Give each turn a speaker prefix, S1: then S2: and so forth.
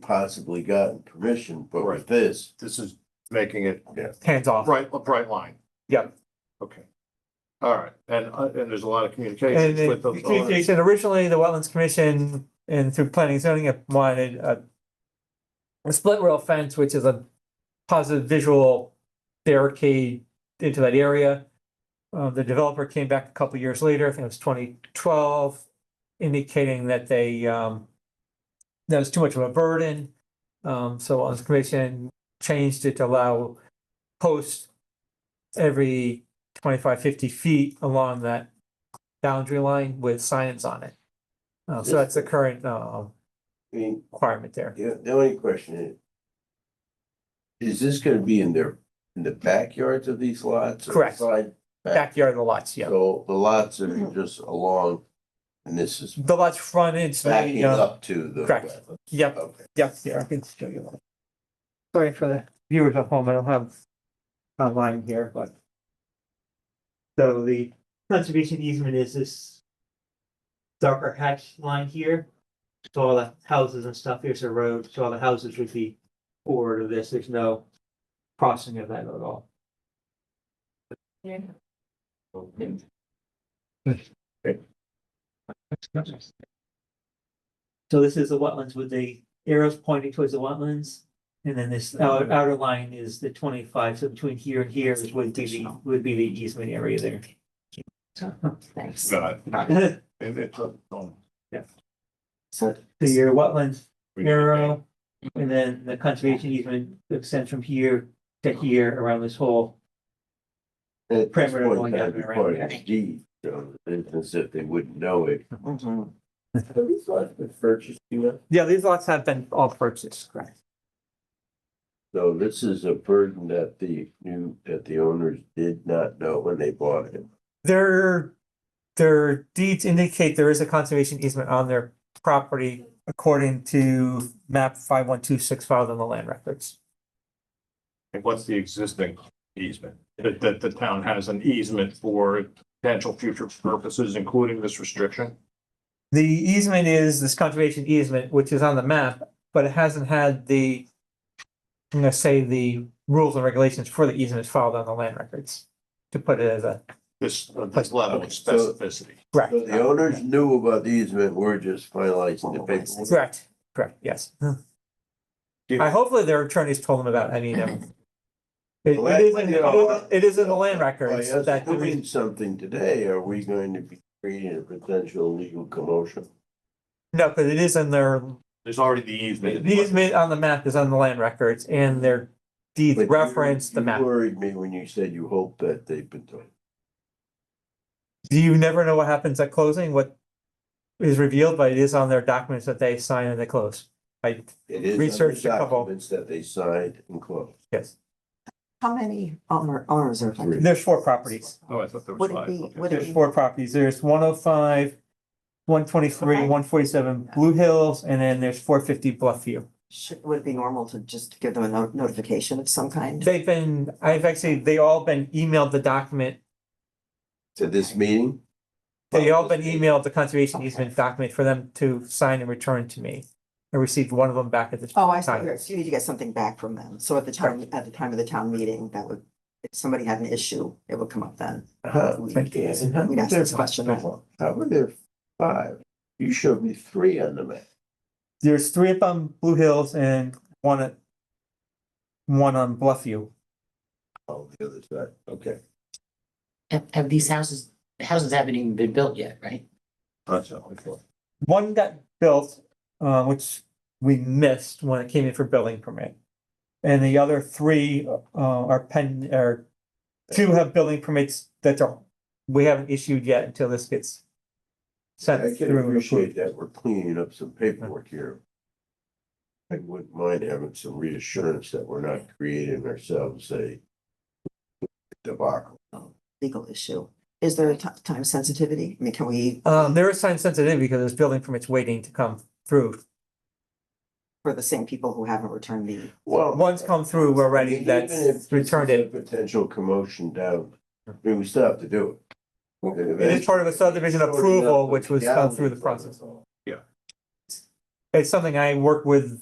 S1: possibly gotten permission, but with
S2: Right.
S1: this,
S2: This is making it
S3: hands off.
S2: bright, a bright line.
S3: Yep.
S2: Okay. All right, and, uh, and there's a lot of
S3: And
S2: communication
S3: then
S2: with those. owners.
S3: communication, originally, the Wetlands Commission and through planning and zoning have wanted a. A split rail fence, which is a positive visual barricade into that area. Uh, the developer came back a couple years later, I think it was twenty twelve, indicating that they, um. That was too much of a burden, um, so Wetlands Commission changed it to allow posts. Every 25, 50 feet along that boundary line with signs on it. Uh, so that's the current, uh,
S1: I mean,
S3: requirement there.
S1: yeah, the only question is. Is this gonna be in their, in the backyards of these lots? or
S3: Correct.
S1: side back?
S3: Backyard of the lots, yeah.
S1: So the lots are just along, and this is
S3: The lots frontage,
S1: backing
S3: the, uh,
S1: up to the.
S3: correct.
S1: wetland.
S3: yep,
S1: Okay.
S3: yep, yeah, I can show you. that. Sorry for the viewers at home, I don't have online here, but. So the conservation easement is this darker hatch line here. So all the houses and stuff, here's a road, so all the houses would be forward of this, there's no crossing of that at all. So this is the wetlands with the arrows pointing towards the wetlands. And then this outer, outer line is the twenty-five, so between here and here is would be the, would be the easement area there.
S4: Thanks.
S2: Got it.
S3: So
S2: It- it's a- um,
S3: your wetlands
S2: we-
S3: arrow, and then the conservation easement extends from here to here around this whole.
S1: And At this
S3: Perimeter
S1: point,
S3: going
S1: that'd
S3: down
S1: be
S3: around
S1: part
S3: there.
S1: of the deed, so it's as if they wouldn't know it. Have these lots been purchased, you know?
S3: Yeah, these lots have been all purchased, correct?
S1: So this is a burden that the new, that the owners did not know when they bought it.
S3: Their, their deeds indicate there is a conservation easement on their property according to map five one two six filed in the land records.
S2: and What's the existing easement? That, that the town has an easement for potential future purposes, including this restriction?
S3: The easement is this conservation easement, which is on the map, but it hasn't had the. I'm gonna say the rules and regulations for the easement filed on the land records, to put it as a.
S2: This, uh, this level of
S1: Okay, so-
S2: specificity.
S3: Correct.
S1: So the owners knew about the easement, we're just finalizing the paperwork.
S3: Correct, correct, yes. I hopefully their attorneys told them about any of them. It
S1: Well,
S3: it is, in-
S1: that's-
S3: it is in the land
S1: By
S3: records
S1: us
S3: that, the
S1: doing
S3: re-
S1: something today, are we going to be creating a potential legal commotion?
S3: no, because it is in their,
S2: There's already the
S3: the
S2: easement.
S3: easement on the map is on the land records and their deeds
S1: But you-
S3: reference the
S1: you
S3: map.
S1: Worried me when you said you hope that they've been told.
S3: Do you never know what happens at closing, what is revealed, but it is on their documents that they sign and they close. I,
S1: It is on the
S3: Research a couple.
S1: Documents that they signed and closed.
S3: yes,
S4: How many owner, owners are there?
S3: there's four properties.
S2: Oh, I thought there was
S4: Would it
S2: five.
S4: be,
S2: Okay.
S4: would
S3: There's
S4: it
S3: four properties. There's one oh five, one twenty-three, one forty-seven Blue Hills, and then there's four fifty Bluffview.
S4: be, should, would it be normal to just give them a no- notification of some kind?
S3: They've been, I've actually, they all been emailed the document.
S1: To this meeting?
S3: They all been emailed the conservation easement document for them to sign and return to me. I received one of them back at this.
S4: Oh, I see.
S3: time.
S4: Yes, You need to get something back from them. So at the time, at the time of the town meeting, that would, if somebody had an issue, it would come up then.
S1: Huh,
S4: Uh-huh. We-
S1: thank you. And how
S4: we'd
S1: were
S4: ask
S1: there
S4: this question
S1: five? How were there five? You showed me three on the map.
S3: There's three up on Blue Hills and one at one on Bluffview.
S1: Oh, the other side, okay.
S5: Have, have these houses, houses haven't even been built yet, right?
S1: That's all I thought.
S3: One got built, uh, which we missed when it came in for building permit. And the other three, uh, are pen, are, two have building permits that are, we haven't issued yet until this gets
S1: I
S3: sent
S1: can
S3: through. and
S1: appreciate
S3: approved.
S1: that we're cleaning up some paperwork here. I wouldn't mind having some reassurance that we're not creating ourselves a debacle.
S4: Legal issue. Is there a ti- time sensitivity? I mean, can we,
S3: Um, there is time sensitivity because there's building permits waiting to come through.
S4: for the same people who haven't returned the,
S1: Well.
S3: One's come through already
S1: Even if this
S3: that's returned
S1: is a
S3: it.
S1: Potential commotion down, I mean, we still have to do it.
S3: It is part of a subdivision approval, which was done through the process.
S2: Yeah.
S3: It's something I work with